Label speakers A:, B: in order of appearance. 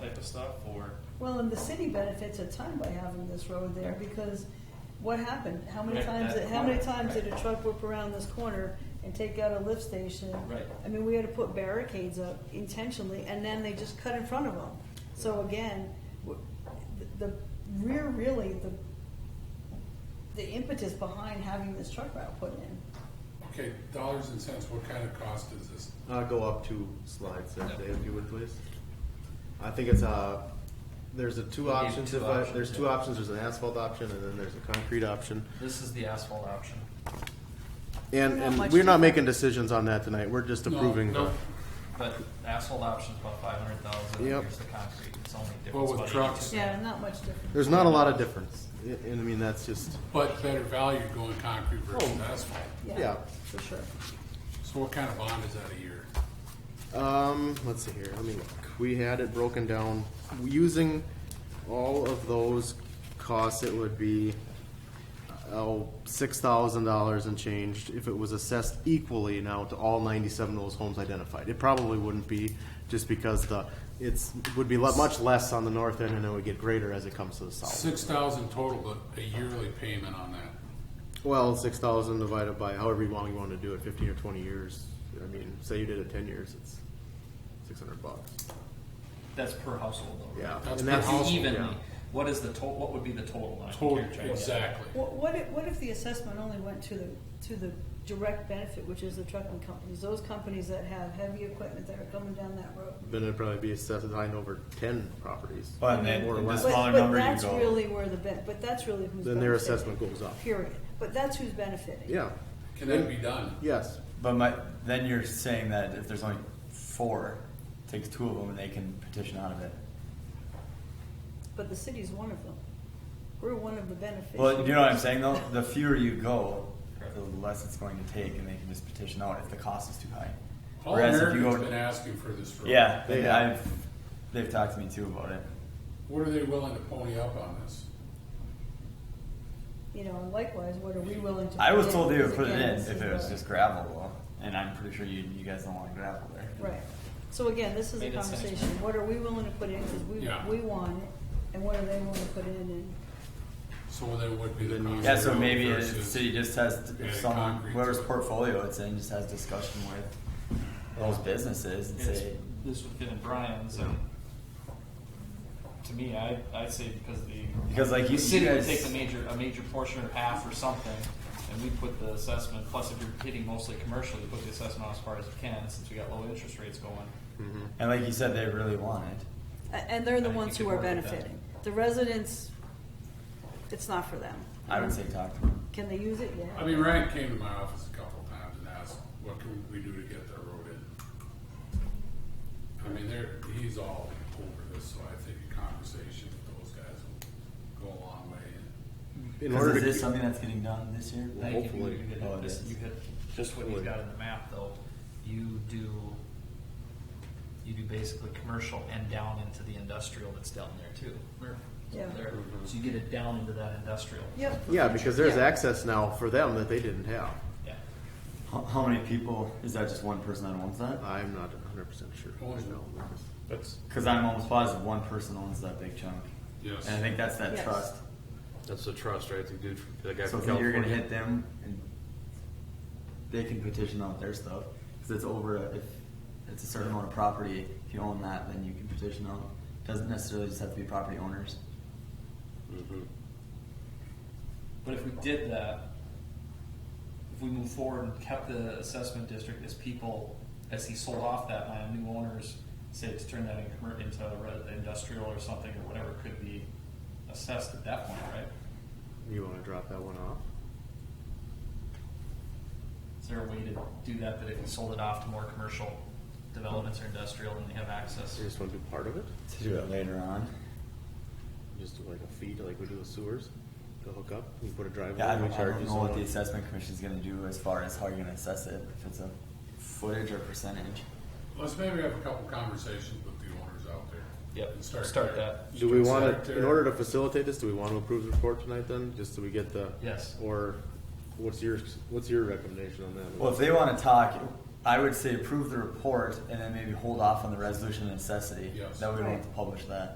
A: to stop for.
B: Well, and the city benefits a ton by having this road there, because what happened? How many
A: Right,
B: times,
A: that
B: how many
A: corner,
B: times did a
A: right.
B: truck whip around this corner and take out a lift station?
A: Right.
B: I mean, we had to put barricades up intentionally, and then they just cut in front of them. So again, w- the the rear, really, the, the impetus behind having this truck route put in.
C: Okay, dollars and cents, what kind of cost is this?
D: Uh, go up two slides there,
A: Yeah.
D: Dave, if you would please. I think it's uh there's a two
E: We need
D: options.
E: two
D: if I,
E: options,
D: there's two
E: yeah.
D: options. There's an asphalt option and then there's a concrete option.
E: This is the asphalt option.
D: And,
B: Not
D: and
B: much
D: we're not
B: different.
D: making decisions on that tonight. We're just
C: No,
D: approving.
C: no.
E: But the asphalt option's about five hundred thousand,
D: Yep.
E: here's the concrete, it's only
C: Well,
E: difference
C: with
E: about
C: trucks.
E: eighty-two.
B: Yeah, not much different.
D: There's not a lot of difference, I- and I mean that's just
C: But better value going concrete versus
A: Oh.
C: asphalt.
D: yeah.
B: For sure.
C: So what kind of bond is that a year?
D: Um, let's see here. Let me look. We had it broken down using all of those costs. It would be oh six thousand dollars and changed if it was assessed equally now to all ninety-seven of those homes identified. It probably wouldn't be just because the it's would be le- much less on the north end and it would get greater as it comes to the
A: Oh.
D: south.
C: Six thousand total, but a yearly payment on that.
D: Well, six thousand divided by however long you want to do it, fifteen or twenty years. I mean, say you did it ten years, it's six hundred bucks.
E: That's per household though.
D: Yeah,
E: right?
C: That's
D: and
C: per
D: that's
C: household,
E: It's evenly,
D: yeah.
E: what is the total, what would be the total on?
C: Total,
E: Here, try to-
C: exactly.
B: What, what if, what if the assessment only went to the, to the direct benefit, which is the trucking companies, those companies that have heavy equipment that are coming down that road?
D: Then it'd probably be assessed nine over ten properties.
A: But then-
D: Or
A: and
D: less.
A: The this- smaller
B: But-
A: number you
B: But that's
A: go-
B: really where the, ben- but that's really who's benefiting.
D: Then their assessment goes up.
B: Period. But that's who's benefiting.
D: Yeah,
C: Can that be done?
D: yes.
A: But my, then you're saying that if there's only four, takes two of them and they can petition out of it.
B: But the city's one of them. We're one of the
A: Well,
B: beneficiaries.
A: you know what I'm saying though? The fewer you go, the less it's going to take and they can just petition out if the cost is too high.
C: All
A: Whereas if you
C: Americans been
A: go,
C: asking for this road.
A: yeah,
D: They
A: they,
D: have.
A: I've, they've talked to me too about it.
C: What are they willing to pony up on this?
B: You know, and likewise, what are we willing to?
A: I was
B: put in?
A: told they would
B: Because
A: put it
B: again,
A: in
B: this
A: if
B: is
A: it was
B: the-
A: just gravel though, and I'm pretty sure you, you guys don't want gravel there.
B: Right. So again, this is a
E: Made it sense.
B: conversation. What are we willing to put in, because
C: Yeah.
B: we, we want it, and what are they willing to put in, and
C: So that would be the cost.
A: Yeah,
C: of
A: so
C: road
A: maybe the
C: versus-
A: city just has,
C: Yeah,
A: if someone,
C: concrete.
A: whoever's portfolio it's in, just has discussion with those businesses and
E: It's-
A: say,
E: This would fit in Brian's, and to me, I, I'd say because the.
A: Because, like, you-
E: The city
A: you
E: would
A: guys-
E: take a major, a major portion or half or something, and we put the assessment, plus if you're hitting mostly commercial, you put the assessment on as far as you can, since we got low interest rates going.
A: and like you said, they really want it.
B: A- And they're
E: I
B: the
E: think
B: ones
E: you
B: who
E: could
B: are
E: work with that.
B: benefiting. The residents, it's not for them.
A: I would say talk to them.
B: Can they use it?
C: I
B: Yeah.
C: mean, Ryan came to my office a couple times and asked, what can we do to get that road in? I mean, there, he's all over this, so I think a conversation with those guys will go a long way.
D: In
A: Because
D: order
A: is
D: to,
A: this
D: keep-
A: something that's getting done this year?
E: I think if you-
D: Hopefully.
E: you hit-
A: Oh, it
E: just-
A: is.
E: You hit, just what you've
D: Hopefully.
E: got in the map though, you do, you do basically commercial and down into the industrial that's down there too.
B: Yeah.
E: There,
A: Mm-hmm.
E: so you get it down into that industrial.
B: Yep.
D: yeah, because there's
B: Yeah.
D: access now for them that they didn't have.
E: Yeah.
A: How, how many people, is that just one person that owns that?
D: I'm not hundred percent sure. right now.
C: That's.
A: Cause I'm almost positive one person owns that big chunk.
C: Yes.
A: And I think that's that
B: Yes.
A: trust.
F: That's the trust, right? The dude, from- the guy
A: So
F: from
A: if you're gonna
F: California.
A: hit them and they can petition out their stuff, cause it's over, a- if it's a certain amount of property, if you own that, then you can petition out. Doesn't necessarily just have to be property owners.
E: But if we did that, if we move forward and kept the assessment district as people, as he sold off that land, new owners, say to turn that in commer- into a re- industrial or something or whatever could be assessed at that point, right?
D: You wanna drop that one off?
E: Is there a way to do that, that if we sold it off to more commercial developments or industrial and they have access?
D: You just wanna do part of it?
A: To do it later on.
D: Just do like a fee, like we do with sewers, to hook up, you put a driveway,
A: Yeah, I
D: and we
A: don't, I
D: charge
A: don't
D: you
A: know
D: so
A: what the
D: much.
A: assessment commission's gonna do as far as how you're gonna assess it, if it's a footage or percentage.
C: Let's maybe have a couple conversations with the owners out there.
E: Yep,
C: And start
E: start
C: there.
E: that.
D: Do we wanna,
C: Start there.
D: in order to facilitate this, do we wanna approve the report tonight then, just so we get the?
E: Yes.
D: Or what's your, what's your recommendation on that?
A: Well, if they wanna talk, I would say approve the report and then maybe hold off on the resolution of necessity.
C: Yes.
A: That way we don't have to publish that.